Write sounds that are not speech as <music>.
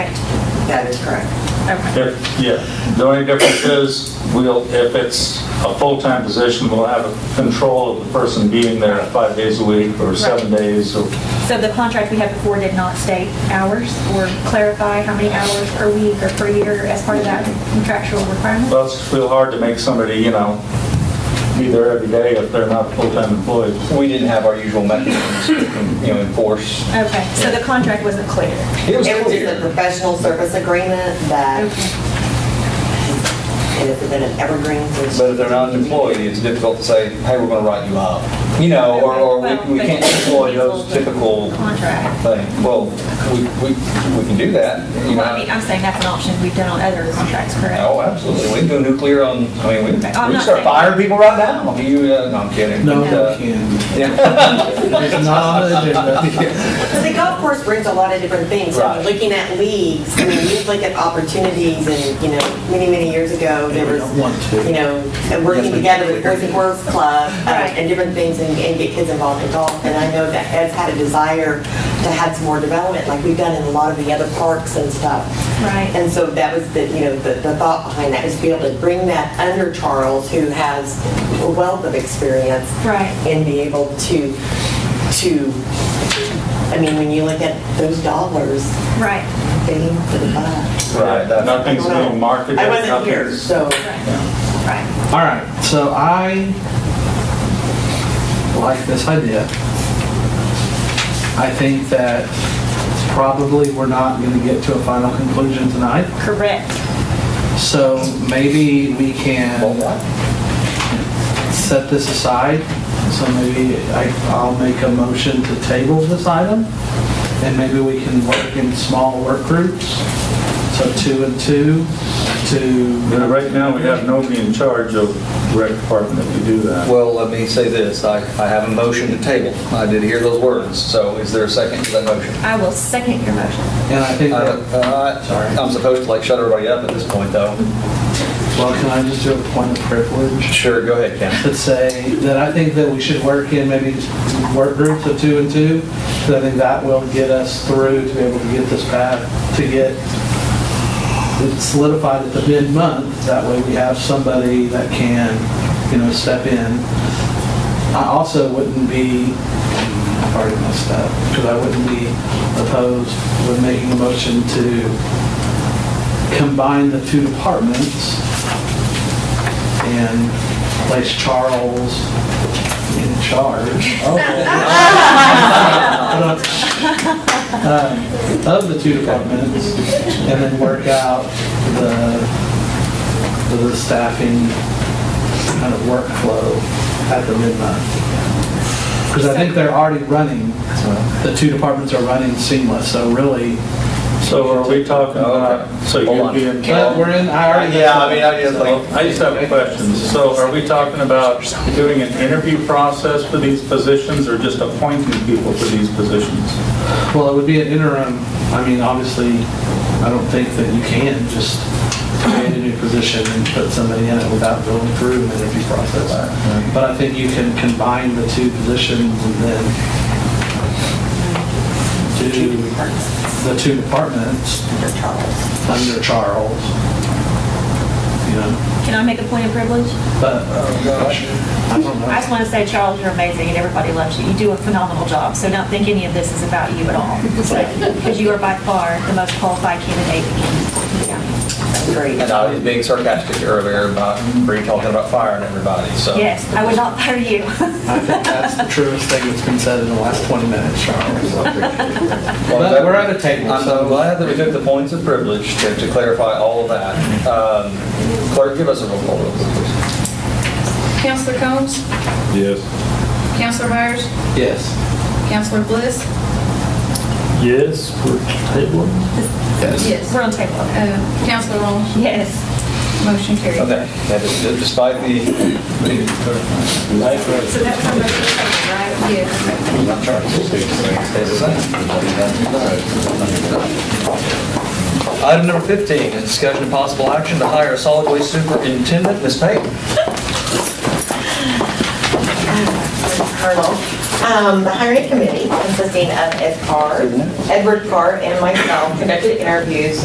That is correct. Okay. If- Yeah, the only difference is, we'll, if it's a full-time position, we'll have control of the person being there five days a week or seven days or So the contract we had before did not state hours or clarify how many hours per week or per year as part of that contractual requirement? Well, it's real hard to make somebody, you know, be there every day if they're not full-time employees. We didn't have our usual mechanisms to, you know, enforce. Okay, so the contract wasn't clear. It was It was just a clear. professional service agreement that, Okay. and it's been an evergreen since. But if they're not employed, it's difficult to say, hey, we're going to write you up. You know, Oh, or, or we we Well, can't but- employ those typical Contract. things. Well, we, we, we can do that, you Well, I mean, know. I'm saying that's an option we've done on other contracts, correct? Oh, absolutely. We can go nuclear on, I mean, we we I'm not can start saying- firing people right now. Do you, uh, no, I'm kidding. No, No. you can't. Yeah. It's not on the agenda. So the golf course brings a lot of different things. So Right. Looking at leagues, I mean, you look at opportunities and, you know, many, many years ago, there We was, don't want to. you know, and working together with Earth and Worth Club uh, Right. and different things and and get kids involved in golf. And I know that Ed's had a desire to have some more development, like we've done in a lot of the other parks and stuff. Right. And so that was the, you know, the, the thought behind that is to be able to bring that under Charles, who has a wealth of experience. Right. And be able to, to, I mean, when you look at those dollars, Right. bang for the buck. Right, that's- Nothing's being marketed. I wasn't here, nothing's- so. Right. <laughs> All right, so I like this idea. I think that probably we're not going to get to a final conclusion tonight. Correct. So maybe we Well, can what? set this aside. So maybe I, I'll make a motion to table this item. And maybe we can work in small work groups. So two and two You know, to, Right now, we have nobody in charge of rec department if you do that. Well, let me say this, I, I have a motion to table. I did hear those words, so is there a second to that motion? I will second your motion. and I think I that don't- uh, I- I'm supposed to like shut everybody up at this point, though. Well, can I just do a point of privilege? Sure, go ahead, Ken. <laughs> That say, that I think that we should work in maybe work groups of two and two, because I think that will get us through to be able to get this path, to get it solidified at the mid-month. That way we have somebody that can, you know, step in. I also wouldn't be, I've already messed up, because I wouldn't be opposed with making a motion to combine the two departments and place Charles in charge <laughs> um, of the two departments and then work out the, the staffing kind of workflow at the midnight. Because I think they're already running, the two departments are running seamless, so really, So are we talking about, so Hold you'd on. be in but we're in, I already. Yeah, I mean, I just Well, like, I just have questions. So are we talking about doing an interview process for these positions or just appointing people for these positions? Well, it would be an interim, I mean, obviously, I don't think that you can just create a new position and put somebody in it without going through an interview process. But I think you can combine the two positions and then do the two departments Under Charles. under Charles. You know, Can I make a point of privilege? but, uh, I don't know. I just want to say, Charles, you're amazing and everybody loves you. You do a phenomenal job, so don't think any of this is about you at all. Because you are by far the most qualified candidate in the county. Great. and I was being sarcastic earlier about, Bree talking about firing everybody, so. Yes, I would not fire you. <laughs> I think that's the truest thing that's been said in the last 20 minutes, Charles. Well, But that- we're at a table, I'm so- I'm glad that we took the points of privilege to to clarify all of that. Um, Clerk, give us a roll call, please. Counselor Combs? Yes. Counselor Myers? Yes. Counselor Bliss? Yes, for tabling. Yes. We're on table. Uh, Counselor Long? Yes. Motion carried. Okay, That is- despite the, So that was our motion to table, right? Yes. Stays the same. Item number 15, is discussion of possible action to hire a solid waste superintendent, Ms. Payton. Colonel. Um, The hiring committee consisting of Ed Carr, Edward Carr, and myself conducted interviews